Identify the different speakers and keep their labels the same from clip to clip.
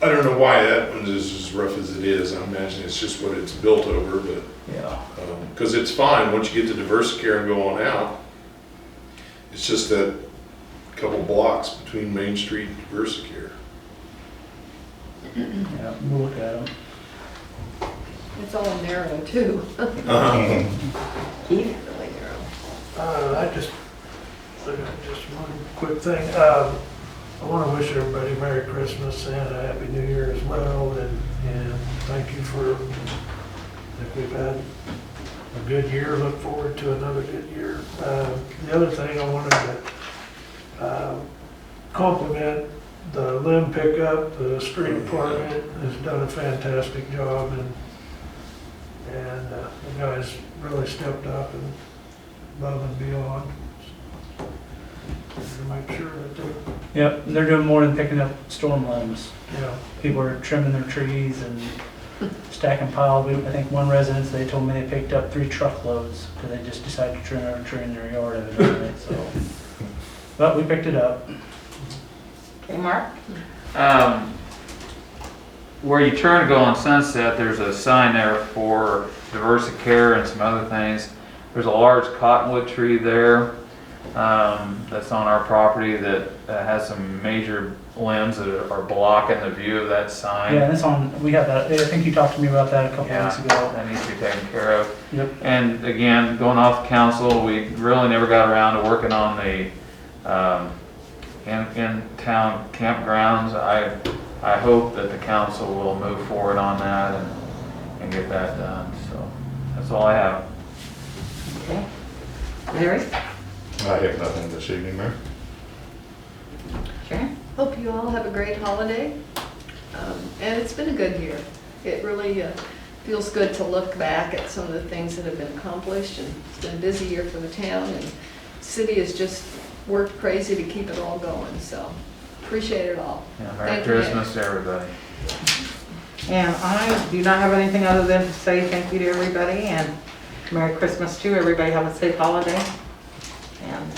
Speaker 1: I don't know why that one is as rough as it is. I imagine it's just what it's built over, but
Speaker 2: Yeah,
Speaker 1: Because it's fine, once you get to Diversicare and go on out, it's just that couple blocks between Main Street and Diversicare.
Speaker 2: yeah, we'll look at them.
Speaker 3: It's all narrow too.
Speaker 4: Uh-huh.
Speaker 3: Even really narrow.
Speaker 5: Uh, I just, I got just one quick thing. Uh, I want to wish everybody Merry Christmas and a Happy New Year as well, and, and thank you for, that we've had a good year, look forward to another good year. Uh, The other thing I wanted to uh, compliment, the limb pickup, the street department has done a fantastic job, and, and uh, the guys really stepped up and above and beyond. To make sure that they,
Speaker 2: Yep, they're doing more than picking up storm limbs.
Speaker 5: you know,
Speaker 2: People are trimming their trees and stacking piles. We- I think one residence, they told me they picked up three truckloads because they just decided to trim every tree in their yard evidently, so. But we picked it up.
Speaker 6: Okay, Mark? Um, where you turn to go on Sunset, there's a sign there for Diversicare and some other things. There's a large cottonwood tree there, um, that's on our property that uh, has some major limbs that are blocking the view of that sign.
Speaker 2: Yeah, and it's on, we have that, I think you talked to me about that a couple
Speaker 6: Yeah.
Speaker 2: months ago.
Speaker 6: That needs to be taken care of.
Speaker 2: Yep.
Speaker 6: And again, going off council, we really never got around to working on the, um, in, in-town campgrounds. I, I hope that the council will move forward on that and, and get that done, so that's all I have.
Speaker 7: Okay. Larry?
Speaker 4: I have nothing this evening, Mayor.
Speaker 7: Sharon?
Speaker 3: Hope you all have a great holiday. Um, And it's been a good year. It really uh, feels good to look back at some of the things that have been accomplished. And it's been a busy year for the town and city has just worked crazy to keep it all going, so appreciate it all.
Speaker 6: Yeah,
Speaker 3: Thank
Speaker 6: Merry
Speaker 3: you, Nick.
Speaker 6: Christmas to everybody.
Speaker 7: And I do not have anything other than to say thank you to everybody and Merry Christmas too. Everybody have a safe holiday. And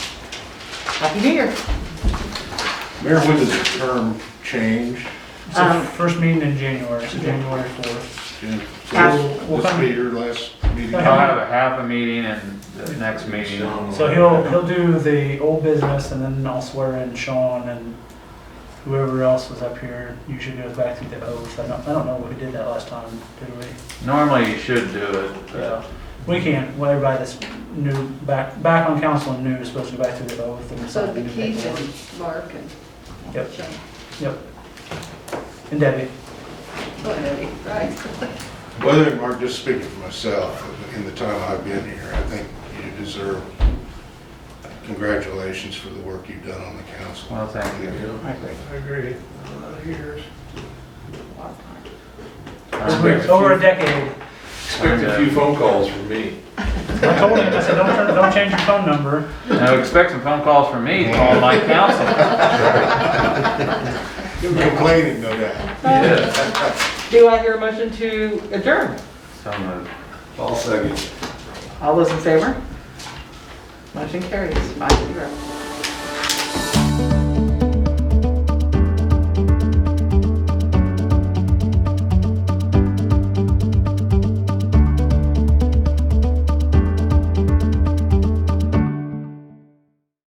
Speaker 7: Happy New Year.
Speaker 4: Mayor, when does the term change?
Speaker 2: It's the
Speaker 7: Um,
Speaker 2: first meeting in January, so January 4th.
Speaker 4: Jim?
Speaker 7: Uh,
Speaker 4: So This will be your last meeting.
Speaker 6: I'll have a half a meeting and the next meeting.
Speaker 2: So he'll, he'll do the old business and then I'll swear in Sean and whoever else was up here. You should go back through the oath. I don't, I don't know what we did that last time, did we?
Speaker 6: Normally you should do it, but
Speaker 2: Yeah, we can't, well, everybody that's new, back, back on council and new is supposed to go back through the oath and
Speaker 3: So
Speaker 2: sign the
Speaker 3: the
Speaker 2: new
Speaker 3: Keith
Speaker 2: paperwork.
Speaker 3: and Mark and
Speaker 2: Yep,
Speaker 3: Sean.
Speaker 2: yep. And Debbie,
Speaker 3: Oh, Eddie, right?
Speaker 4: Well, I think, Mark, just speaking for myself, in the time I've been here, I think you deserve congratulations for the work you've done on the council.
Speaker 6: Well, thank you.
Speaker 4: I think
Speaker 5: I agree, a lot of years.
Speaker 6: I'm
Speaker 1: Great.
Speaker 2: over a decade,
Speaker 1: Expect a few phone calls from me.
Speaker 2: I told him, I said, don't, turn- don't change your phone number.
Speaker 6: Now expect some phone calls from me, calling my council.
Speaker 4: You're complaining, no doubt.
Speaker 6: Yes.
Speaker 7: Do I hear a motion to adjourn?
Speaker 6: So moved.
Speaker 1: I'll second.
Speaker 7: All those in favor? Motion carries, five zero.